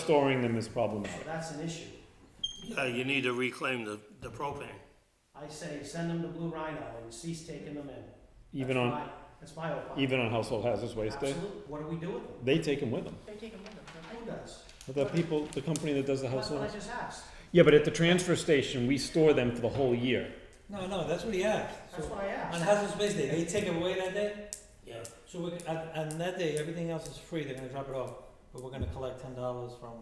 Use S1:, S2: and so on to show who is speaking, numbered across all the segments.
S1: storing them is problematic.
S2: That's an issue.
S3: Uh, you need to reclaim the, the propane.
S2: I say, send them to Blue Rhino and cease taking them in.
S1: Even
S2: That's
S1: on,
S2: my- That's my opinion.
S1: even on household hazardous waste day,
S2: Absolute. What do we do with them?
S1: they take them with them.
S4: They're taking with them, don't
S2: Who does?
S1: But The people, the company that does the
S2: That's what I
S1: household.
S2: just asked.
S1: Yeah, but at the transfer station, we store them for the whole year.
S5: No, no, that's what he asked.
S2: That's
S5: So
S2: what I
S5: on
S2: asked.
S5: hazardous waste day, they take it away that day.
S3: Yeah.
S5: So we, on, on that day, everything else is free. They're gonna drop it off, but we're gonna collect ten dollars from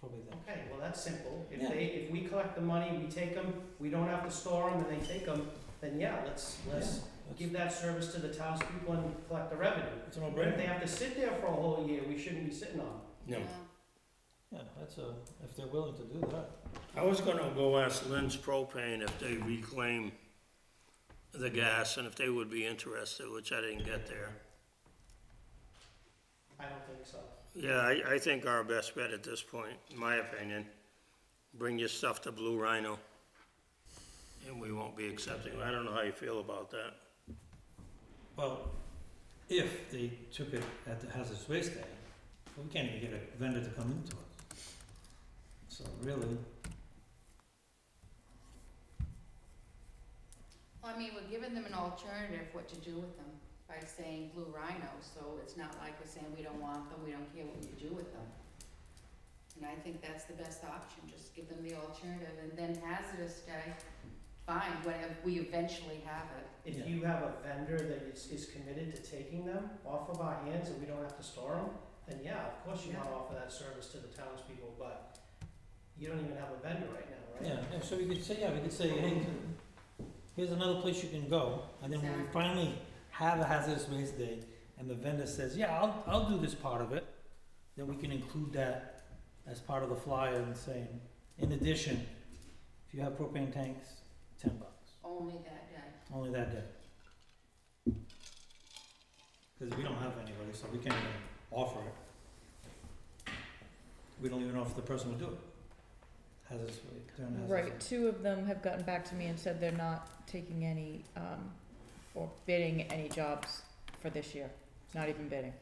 S5: probably them.
S2: Okay, well, that's simple. If
S5: Yeah.
S2: they, if we collect the money, we take them, we don't have to store them, and they take them, then yeah, let's, let's
S5: Yeah,
S2: give that service to the townspeople and collect the revenue.
S5: that's- It's a
S2: But if they
S5: no-brainer.
S2: have to sit there for a whole year, we shouldn't be sitting on them.
S3: No.
S4: they?
S5: Yeah, that's a, if they're willing to do that.
S3: I was gonna go ask Lynn's propane if they reclaim the gas and if they would be interested, which I didn't get there.
S2: I don't think so.
S3: Yeah, I, I think our best bet at this point, in my opinion, bring your stuff to Blue Rhino. And we won't be accepting, I don't know how you feel about that.
S5: Well, if they took it at the hazardous waste day, we can't even get a vendor to come into us. So really,
S4: Well, I mean, we're giving them an alternative what to do with them by saying Blue Rhino, so it's not like we're saying we don't want them, we don't care what you do with them. And I think that's the best option, just give them the alternative and then hazardous day, fine, whatever, we eventually have it.
S2: If
S5: Yeah.
S2: you have a vendor that is, is committed to taking them off of our hands and we don't have to store them, then yeah, of course you
S4: Yeah.
S2: wanna offer that service to the townspeople, but you don't even have a vendor right now, right?
S5: yeah, yeah, so we could say, yeah, we could say, hey, here's another place you can go, and then when we
S4: Exactly.
S5: finally have a hazardous waste day, and the vendor says, yeah, I'll, I'll do this part of it, then we can include that as part of the flyer and saying, in addition, if you have propane tanks, ten bucks,
S4: Only that day.
S5: only that day. Cause we don't have anybody, so we can't even offer it. We don't even know if the person will do it. Hazardous waste, during hazardous waste.
S6: Right, two of them have gotten back to me and said they're not taking any, um, or bidding any jobs for this year, not even bidding.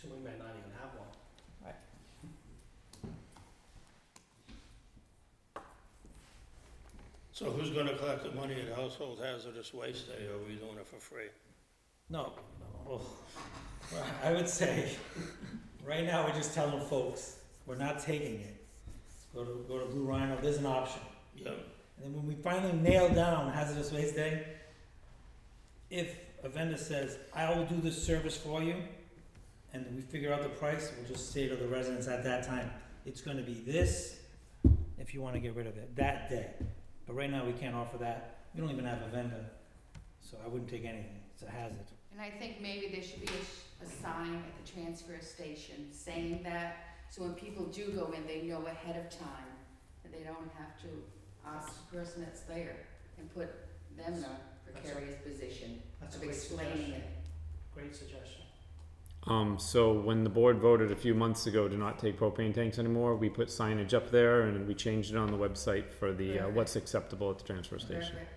S2: So we might not even have one.
S3: So who's gonna collect the money at Household Hazardous Waste Day, or are we doing it for free?
S5: No, oh, well, I would say, right now, we're just telling folks, we're not taking it. Go to, go to Blue Rhino, there's an option.
S3: Yeah.
S5: And then when we finally nail down hazardous waste day, if a vendor says, I will do this service for you, and we figure out the price, we'll just say to the residents at that time, it's gonna be this, if you wanna get rid of it, that day. But right now, we can't offer that, we don't even have a vendor, so I wouldn't take anything, it's a hazard.
S4: And I think maybe there should be a, sh- a sign at the transfer station saying that, so when people do go in, they know ahead of time, that they don't have to ask the person that's there and put them in a precarious position
S2: That's a
S4: of
S2: great
S4: explaining
S2: suggestion.
S4: it.
S2: Great suggestion.
S1: Um, so when the board voted a few months ago to not take propane tanks anymore, we put signage up there and we changed it on the website for the, uh,
S4: Perfect.
S1: what's acceptable at the transfer station.
S4: Perfect.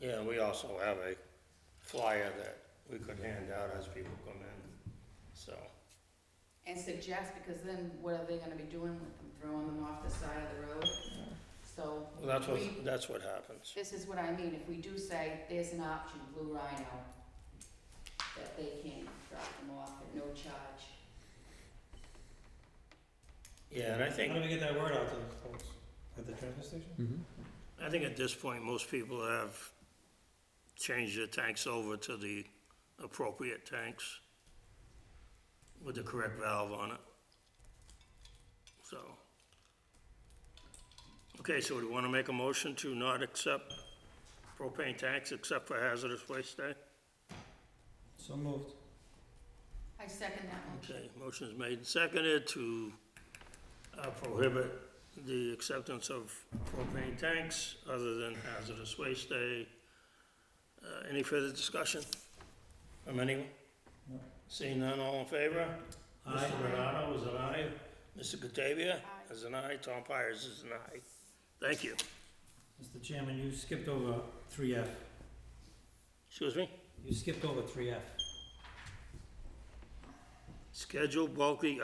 S3: Yeah, we also have a flyer that we could hand out as people come in, so.
S4: And suggest, because then what are they gonna be doing with them, throwing them off the side of the road? So,
S3: Well, that's what,
S4: We-
S3: that's what happens.
S4: this is what I mean, if we do say, there's an option, Blue Rhino, that they can drop them off at no charge.
S3: Yeah, and I
S5: How do
S3: think,
S5: we get that word out to the folks? At the transfer station?
S1: Mhm.
S3: I think at this point, most people have changed their tanks over to the appropriate tanks with the correct valve on it. So. Okay, so do you wanna make a motion to not accept propane tanks except for hazardous waste day?
S5: So moved.
S4: I second that motion.
S3: Okay, motion is made and seconded to uh, prohibit the acceptance of propane tanks other than hazardous waste day. Uh, Any further discussion from anyone?
S5: No.
S3: Seeing none, all in favor?
S5: Aye.
S3: Mr. Bernardo is an aye. Mr. Catavia
S4: Aye.
S3: is an aye. Tom Pires is an aye. Thank you.
S5: Mr. Chairman, you skipped over three F.
S3: Excuse me?
S5: You skipped over three F.
S3: Schedule bulky